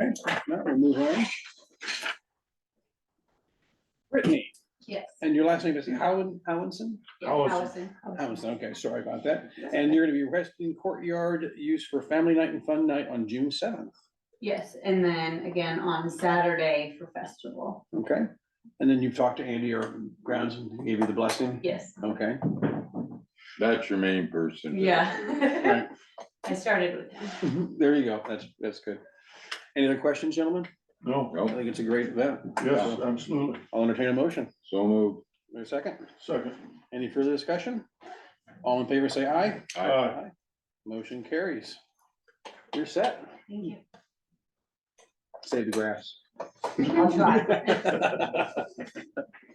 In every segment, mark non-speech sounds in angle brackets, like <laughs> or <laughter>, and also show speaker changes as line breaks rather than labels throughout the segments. Okay, if not, we'll move on. Brittany,
Yes.
and your last name is Howen, Howenson?
yes,
Allison.
Allison.
Howenson, okay, sorry about that. And you're gonna be requesting courtyard use for family night and fun night on June seventh,
Yes, and then again on Saturday for festival.
okay? And then you've talked to Andy or grounds and he gave you the blessing?
Yes.
Okay,
That's your main person.
Yeah.
Right.
<laughs> I started with him.
Mm-hmm, there you go, that's, that's good. Any other questions, gentlemen?
No,
I
Nope,
think it's a great event.
yes, absolutely.
I'll entertain a motion.
so moved.
Wait a second.
Second.
Any further discussion? All in favor, say aye.
Aye.
Aye.
Motion carries. You're set. <laughs>
Thank you.
Save the grass.
I'll try.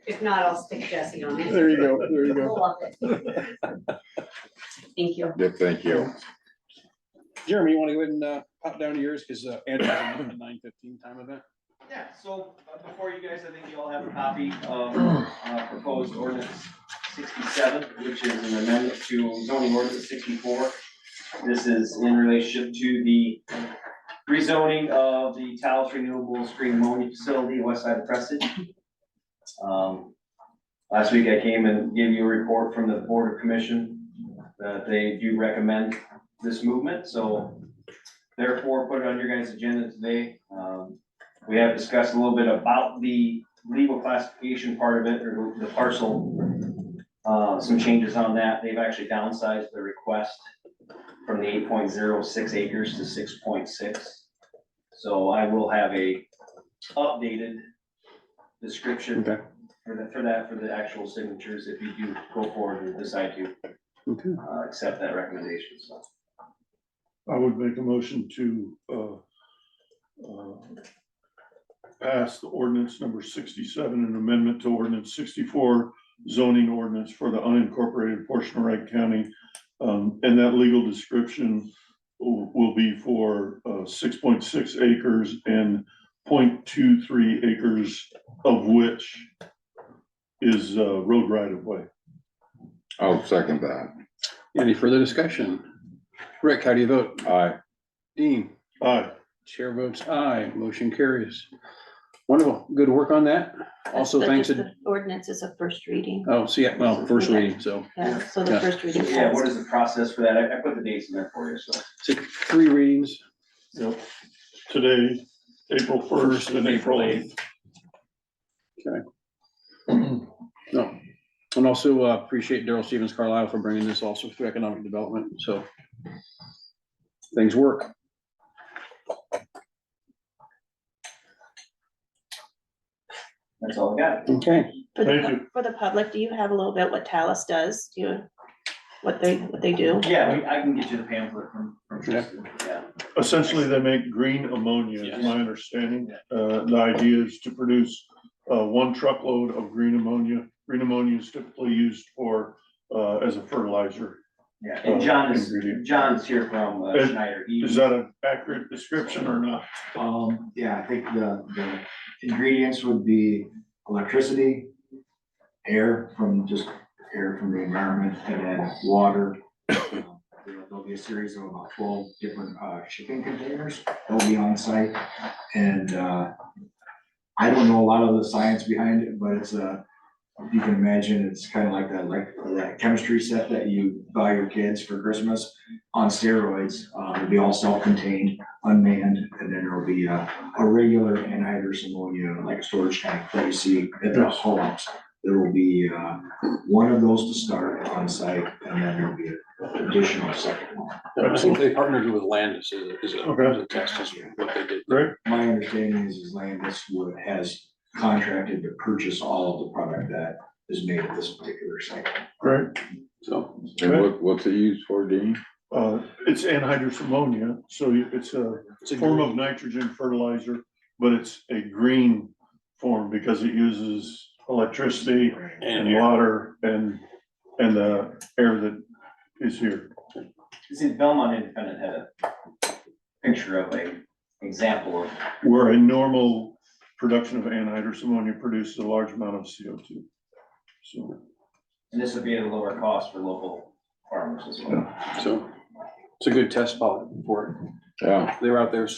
If not, I'll stick Jesse on it.
There you go, there you
We'll
go.
love it.
<laughs>
Thank you.
Yeah, thank you.
Jeremy, you want to go ahead and uh, pop down to yours uh, because Andrew's at the nine fifteen time event?
Yeah, so uh, before you guys, I think you all have a copy of uh, proposed ordinance sixty-seven, which is an amendment to zoning ordinance sixty-four. This is in relationship to the rezoning of the Taos Renewable Green Ammonia Facility, west side of Preston. Um, Last week I came and gave you a report from the Board of Commission that they do recommend this movement, so therefore put it on your guys' agenda today. Um, we have discussed a little bit about the legal classification part of it, or the parcel. Uh, some changes on that. They've actually downsized the request from the eight point zero six acres to six point six. So I will have a updated description
Okay.
for that, for that, for the actual signatures, if you do go forward and decide to,
Okay.
uh, accept that recommendation, so.
I would make a motion to, uh, uh, pass the ordinance number sixty-seven, an amendment to ordinance sixty-four zoning ordinance for the unincorporated portion of Wright County. Um, and that legal description will, will be for, uh, six point six acres and 0.23 acres of which is, uh, road right of way.
I'll second that.
Any further discussion? Rick, how do you vote?
Aye.
Dean?
Aye.
Chair votes aye, motion carries. Wonderful, good work on that. Also,
But
thanks
just
to,
the Ordinance is a first reading,
oh, see, yeah, well, first reading, so
yeah, so
Yeah.
the first reading.
Yeah, what is the process for that? I, I put the dates in there for you, so.
six, three readings.
Yep, today, April first and April eighth.
No. And also uh, appreciate Daryl Stevens Carlisle for bringing this also through economic development, so. Things work.
That's all I got.
Okay.
For the,
Thank you.
pub- for the public, do you have a little bit what Talus does, Do you, what they, what they do?
Yeah, we- I can get you the pamphlet from, from
Yeah.
Tristan, yeah.
Essentially, they make green ammonia,
Yes.
is my understanding. Uh, the idea is to produce, uh, one truckload of green ammonia. Green ammonia is typically used for, uh, as a fertilizer.
Yeah, and John is,
Ingredient.
John's here from uh,
Is-
Schneider. He-
Is that an accurate description or not?
Um, yeah, I think the, the ingredients would be electricity, air from just air from the environment, and then water. <coughs> Um, there- There'll be a series of about twelve different, uh, shipping containers that'll be on site, and, uh, I don't know a lot of the science behind it, but it's a, if you can imagine, it's kind of like that, like, that chemistry set that you buy your kids for Christmas on steroids, uh, it'll be all self-contained unmanned, and then there'll be a, a regular anhydrous ammonia, like a storage tank that you see at the homes. There will be, uh, one of those to start on site, and then there'll be an additional second one.
I think they partnered with Landis is a- is a, is a test, is what they did.
My understanding is, is Landis would, has contracted to purchase all of the product that is made at this particular site.
Right.
So,
And what, what's it used for, Dean?
Uh, it's anhydrous ammonia, so you- it's a
it's a
form
good-
of nitrogen fertilizer, but it's a green form because it uses electricity and
and
water and, and the air that is here.
See, Belmont Independent had a picture of a example of,
Where a normal production of anhydrous ammonia produces a large amount of CO2. So,
and this would be at a lower cost for local farmers as well.
so it's a good test pilot for
Yeah.
it. They were out there